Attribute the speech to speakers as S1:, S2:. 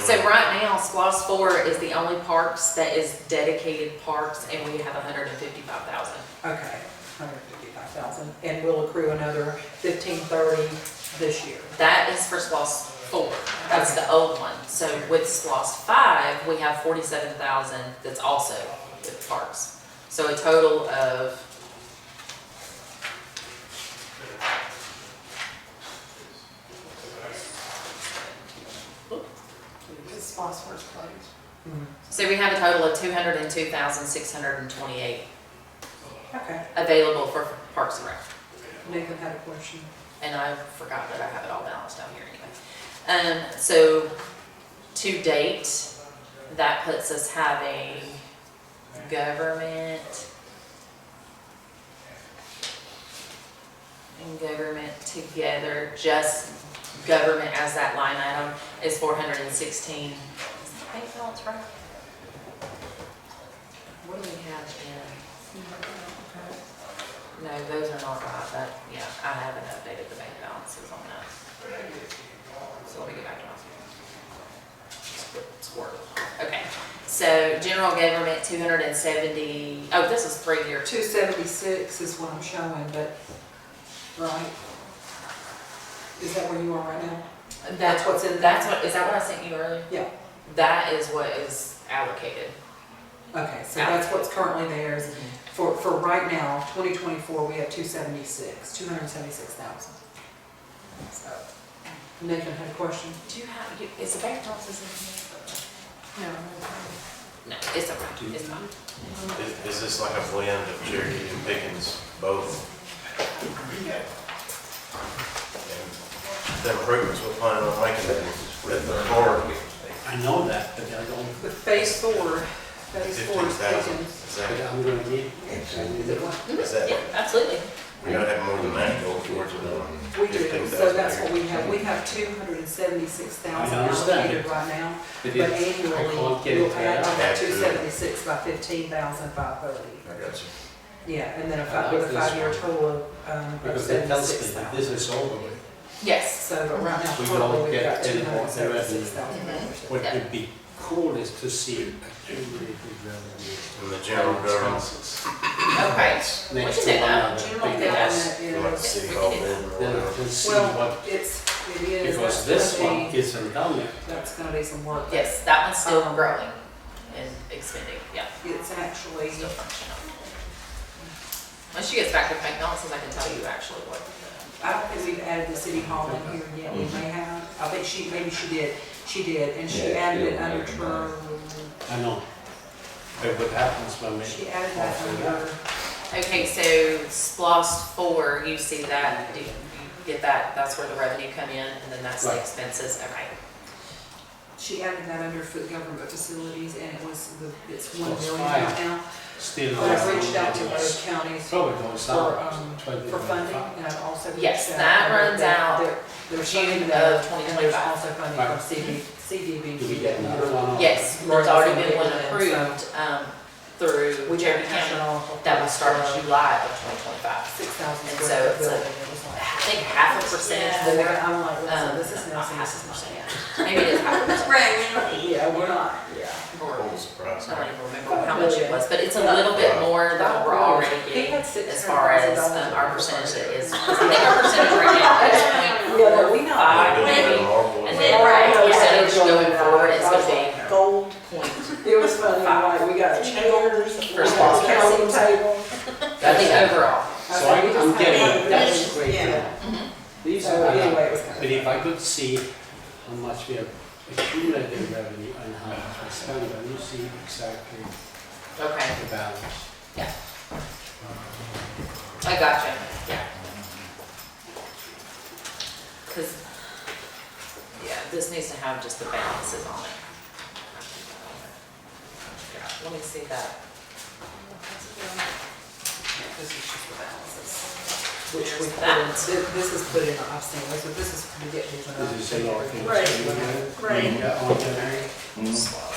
S1: So right now, Splos Four is the only parks that is dedicated parks, and we have hundred and fifty-five thousand.
S2: Okay, hundred fifty-five thousand, and we'll accrue another fifteen thirty this year.
S1: That is for Splos Four, that's the old one. So with Splos Five, we have forty-seven thousand that's also with parks. So a total of
S3: Because Foster's closed.
S2: Mm-hmm.
S1: So we have a total of two hundred and two thousand, six hundred and twenty-eight
S2: Okay,
S1: available for Parks and Rec.
S2: Nathan had a question.
S1: And I forgot that I have it all balanced down here anyway. Um, so to date, that puts us having government and government together, just government as that line item is four hundred and sixteen. Is the bank balance right? What do we have in? No, those are not right, but yeah, I haven't updated the bank balances on that. So let me go back to my. Squirt. Okay, so general government, two hundred and seventy, oh, this is three year,
S2: Two seventy-six is what I'm showing, but, right? Is that where you are right now?
S1: that's what's in, that's what, is that what I sent you earlier?
S2: Yeah.
S1: That is what is allocated.
S2: Okay, so that's what's currently theirs. For, for right now, twenty twenty-four, we have two seventy-six, two hundred and seventy-six thousand. So, Nathan had a question?
S1: Do you have, you- is the bank balances
S2: No.
S1: in here? No, it's okay, it's fine.
S4: Is, is this like a blend of Cherokee and Pickens, both? And The improvements we're planning on making with the park,
S5: I know that, but I don't,
S2: But phase four, phase four
S4: fifteen
S2: is
S4: thousand,
S2: taken.
S4: is
S5: but
S4: that,
S5: I'm gonna need, I need
S2: Is it
S5: it.
S2: what?
S4: is that,
S1: Yeah, absolutely.
S4: we gotta have more than that going towards it.
S2: We do, so that's what we have, we have two hundred and seventy-six thousand
S5: I understand.
S2: allocated right now,
S5: But
S2: but
S5: it- I
S2: annually,
S5: can't get it
S2: we'll add
S5: there.
S2: on that
S4: Add to
S2: two
S4: it.
S2: seventy-six by fifteen thousand five thirty.
S4: I got you.
S2: Yeah, and then a
S5: I
S2: five,
S5: like
S2: with a
S5: this
S2: five-year
S5: one.
S2: total of, um, of
S5: Because that tells
S2: seventy-six
S5: me that
S2: thousand.
S5: this is over with,
S1: Yes,
S2: So, but right now,
S5: We don't
S2: currently, we've
S5: get
S2: got two
S5: any
S2: hundred
S5: more
S2: and seventy-six thousand dollars.
S5: what would be cool is to see accumulated revenue.
S4: And the general government,
S5: Expenses.
S1: okay. We
S5: Next
S1: can do
S5: to one
S1: that.
S5: another,
S2: General
S5: because
S2: government
S4: like
S2: is,
S4: city hall building or
S5: Then I
S4: whatever.
S5: can see
S2: well,
S5: what,
S2: it's, it is. that's
S5: because this
S2: gonna
S5: one
S2: be-
S5: isn't done yet.
S2: That's gonna be some work.
S1: Yes, that one's still
S2: Um,
S1: growing and expanding, yeah,
S2: It's actually,
S1: still functional. Once she gets back to bank balances, I can tell you actually what. the-
S2: I don't think we've added the city hall in here yet, we may have, I think she, maybe she did, she did, and she
S6: Yeah,
S2: added it
S6: yeah,
S2: under
S6: yeah.
S2: term,
S5: I know. But what happens when we.
S2: she added that under,
S1: Okay, so SPOS four, you see that, do you you get that, that's where the revenue come in, and then that's the
S5: Right.
S1: expenses, okay.
S2: she added that under for the government facilities, and it was, the it's one
S5: Well, it's
S2: million
S5: fine.
S2: right now.
S5: Still.
S2: But I've reached out to other counties for,
S5: Probably goes up
S2: um,
S5: twenty.
S2: for funding, and I've also. reached
S1: Yes,
S2: out
S1: that
S2: and
S1: runs
S2: that
S1: out
S2: there- There's
S1: June
S2: funding
S1: of
S2: there, and there's
S1: 2025.
S2: also funding from
S5: Right.
S2: CD, CDBG.
S5: Do we get another one?
S1: Yes, there's already been one approved, um, through
S2: We
S1: Jeremy
S2: haven't had it
S1: County,
S2: all.
S1: that will start in July of twenty twenty-five.
S2: six thousand
S1: And so it's
S2: square foot
S1: a-
S2: building, it was
S1: I
S2: like.
S1: think half a percentage more,
S2: And then I'm like, listen,
S1: um,
S2: this is
S1: not
S2: nothing,
S1: half a
S2: this is nothing.
S1: maybe it is half a percent.
S2: Yeah, we're not, yeah.
S1: Or-
S4: Total surprise.
S1: I don't even remember how much it was, but it's a little bit more than what we're already getting as far as um, our percentage that is. I think our percentage right now is
S2: Yeah, but we know.
S1: five,
S4: Building
S1: maybe.
S4: the marble.
S1: And
S2: All
S1: then
S2: right,
S1: our
S2: yeah.
S1: percentage going forward is going to
S2: Gold.
S1: be point.
S2: It was funny, like, we got chairs, we got a counting table.
S1: I think overall,
S5: So I- I'm getting,
S2: Yeah.
S5: that's great. These
S2: So
S5: are,
S2: anyway, it was kind of.
S5: but if I could see how much we have accumulated revenue and how much we spent, then you see exactly
S1: okay,
S5: the balance.
S1: I gotcha, yeah. Because, yeah, this needs to have just the balances on it. Yeah, Let me see that.
S2: This is just the balances. Which we
S1: There's
S2: put in,
S1: that.
S2: thi- this is put in, I've seen this, but this is, we get these.
S5: This is a lot of things.
S3: Right, right.
S5: Yeah, on the,
S4: Slide.